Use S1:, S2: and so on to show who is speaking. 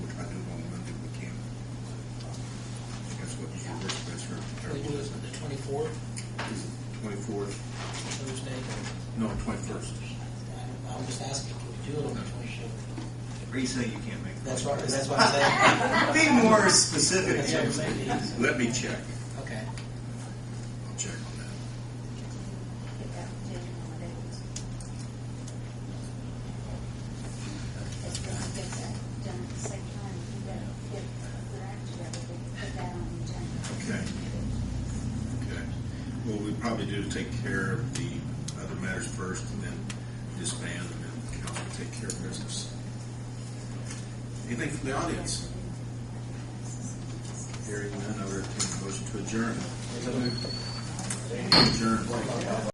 S1: fourth,
S2: Twenty-fourth,
S1: Thursday?
S2: no, twenty-first.
S1: I- I'm just asking, can we do it on the twenty-fifth?
S3: Or you say you can't make.
S1: That's right, that's what I'm saying.
S3: Be more specific.
S1: That's what I'm saying, yes.
S2: Let me check.
S1: Okay.
S2: I'll check on
S4: Get that taken on the dates. Let's go and get that done at the same time, we better get the act together, we can put that on the agenda.
S2: that. Okay. Okay. Well, we probably do take care of the other matters first and then disband and then council will take care of business. Anything from the audience? Hearing none, I'll entertain a motion to adjourn. Adjourn.